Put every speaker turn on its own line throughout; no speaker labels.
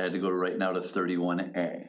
I had to go right now to thirty-one A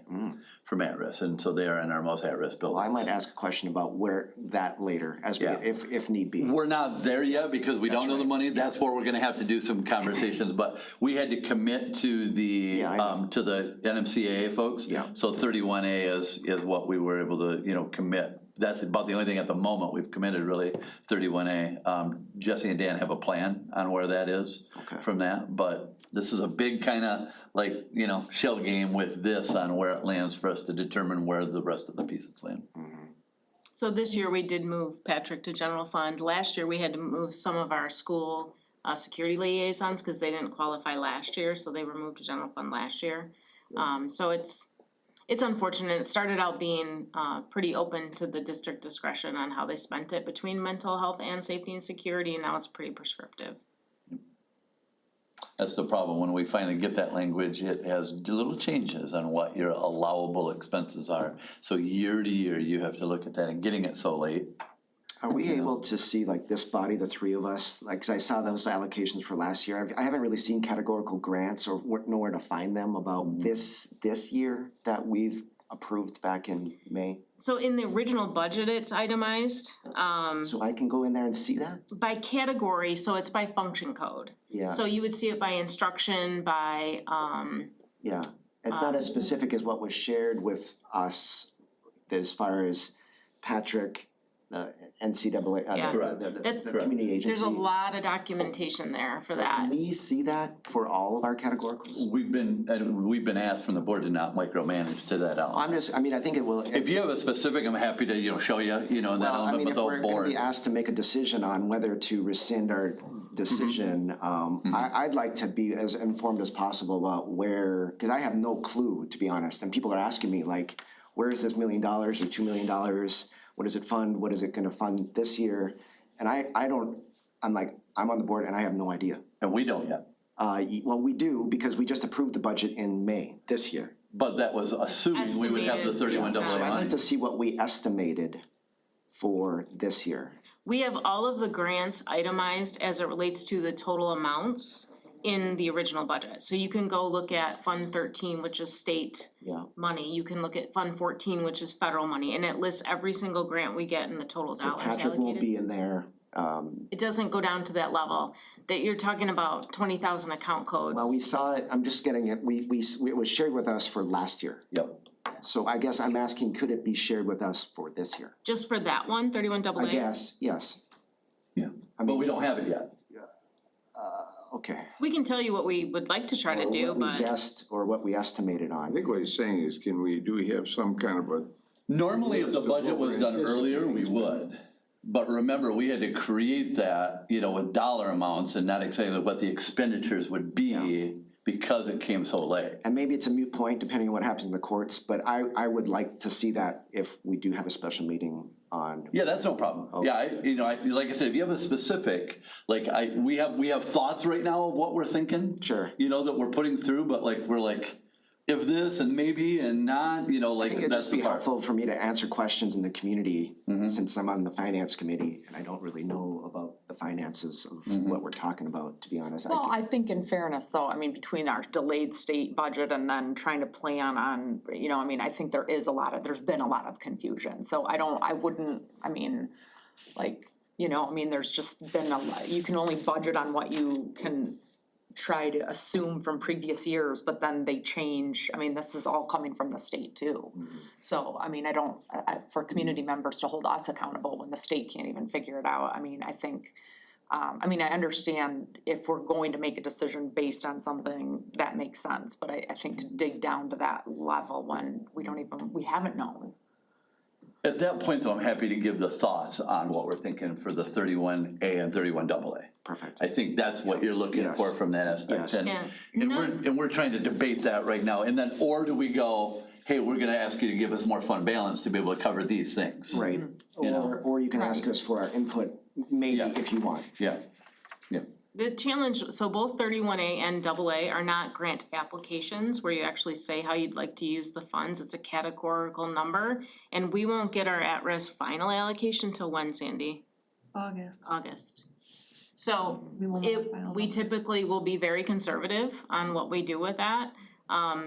from at-risk, and so they are in our most at-risk
I
building.
might ask a question about where that later, as we,
Yeah.
if, if need be.
We're not there yet because we don't know the
right.
money, that's where we're gonna have to do some conversations, but we had to commit to the,
Yeah, I know.
um, to the NMCAA folks.
Yeah.
So thirty-one A is, is what we were able to, you know, commit, that's about the only thing at the moment we've committed really, thirty-one A. Um, Jesse and Dan have a plan on where that is
Okay.
from that, but this is a big kinda, like, you know, shell game with this on where it lands for us to determine where the rest of the pieces land.
So this year we did move Patrick to general fund. Last year we had to move some of our school uh security liaisons because they didn't qualify last year, so they were moved to general fund last year. Um so it's it's unfortunate. It started out being uh pretty open to the district discretion on how they spent it between mental health and safety and security, and now it's pretty prescriptive.
That's the problem, when we finally get that language, it has little changes on what your allowable expenses are. So year to year, you have to look at that, and getting it so late,
Are we able to see like this body, the three of us, like, 'cause I saw those allocations for last year, I've- I haven't really seen categorical grants or wh- know where to find them about
Mm-hmm.
this, this year that we've approved back in May.
So in the original budget, it's itemized um
So I can go in there and see that?
by category, so it's by function code.
Yeah,
So you would see it by instruction, by um
yeah, it's not as specific as what was shared with us as far as Patrick, the NCAA,
Yeah.
uh,
Correct.
the- the, the,
That's-
the community agency.
There's a lot of documentation there for
Can
that.
we see that for all of our categoricals?
we've been, and we've been asked from the board to not micromanage to that element.
I'm just, I mean, I think it will,
If you have a specific, I'm happy to, you know, show you, you know, that
Well, I
element,
mean,
but
if we're
the
gonna be
board.
asked to make a decision on whether to rescind our
Mm-hmm.
decision, um, I, I'd like to be as informed as possible about where, cause I have no clue, to be honest, and people are asking me like, where is this million dollars or two million dollars? What does it fund? What is it gonna fund this year? And I, I don't, I'm like, I'm on the board and I have no idea.
And we don't yet,
Uh, y- well, we do, because we just approved the budget in May this year.
but that was assuming we would have the
Estimated, yes.
thirty-one double A
So I'd
money.
like to see what we estimated for this year.
We have all of the grants itemized as it relates to the total amounts in the original budget. So you can go look at Fund thirteen, which is state
Yeah.
money. You can look at Fund fourteen, which is federal money, and it lists every single grant we get and the total dollars allocated.
Patrick won't be in there. Um,
It doesn't go down to that level, that you're talking about twenty thousand account codes.
well, we saw it, I'm just getting it, we, we, it was shared with us for last year.
Yep,
So I guess I'm asking, could it be shared with us for this year?
Just for that one, thirty-one double A.
I guess, yes,
yeah, but we don't have it yet.
okay.
We can tell you what we would like to try to do,
What we
but.
guessed or what we estimated
I
on.
think what he's saying is, can we, do we have some kind of a,
Normally, if the
As to what
budget was
we're
done earlier, we
anticipating.
would. But remember, we had to create that, you know, with dollar amounts and not exactly what the expenditures would be because it came so late.
And maybe it's a moot point depending on what happens in the courts, but I, I would like to see that if we do have a special meeting on.
Yeah, that's no problem. Yeah, I, you know, I, like I said, if you have a specific, like I, we have, we have thoughts right now of what we're thinking.
Sure.
You know, that we're putting through, but like, we're like, if this and maybe and not, you know, like,
I think it'd
that's
just be
the part. Mm-hmm.
helpful for me to answer questions in the community, since I'm on the finance committee and I don't really know about the finances of
Mm-hmm.
what we're talking about, to be honest. I
Well,
could-
I think in fairness, though, I mean, between our delayed state budget and then trying to plan on, you know, I mean, I think there is a lot of, there's been a lot of confusion, so I don't, I wouldn't, I mean, like, you know, I mean, there's just been a lot, you can only budget on what you can try to assume from previous years, but then they change, I mean, this is all coming from the state too. So, I mean, I don't, I- I, for community members to hold us accountable when the state can't even figure it out, I mean, I think, um, I mean, I understand if we're going to make a decision based on something, that makes sense, but I, I think to dig down to that level when we don't even, we haven't known.
At that point though, I'm happy to give the thoughts on what we're thinking for the thirty-one A and thirty-one double A.
Perfect.
I think that's what you're looking
Yes.
for from that
Yes.
aspect, and,
Yeah.
and we're, and we're trying to debate that right now, and then, or do we go, hey, we're gonna ask you to give us more fund balance to be able to cover these things?
Right,
know.
or, or you can ask us for our input, maybe
Yeah.
if you want.
Yeah, yeah,
The challenge, so both thirty-one A and double A are not grant applications where you actually say how you'd like to use the funds, it's a categorical number. And we won't get our at-risk final allocation till when, Sandy?
August.
August. So
We will not
it,
file
we
them.
typically will be very conservative on what we do with that. Um,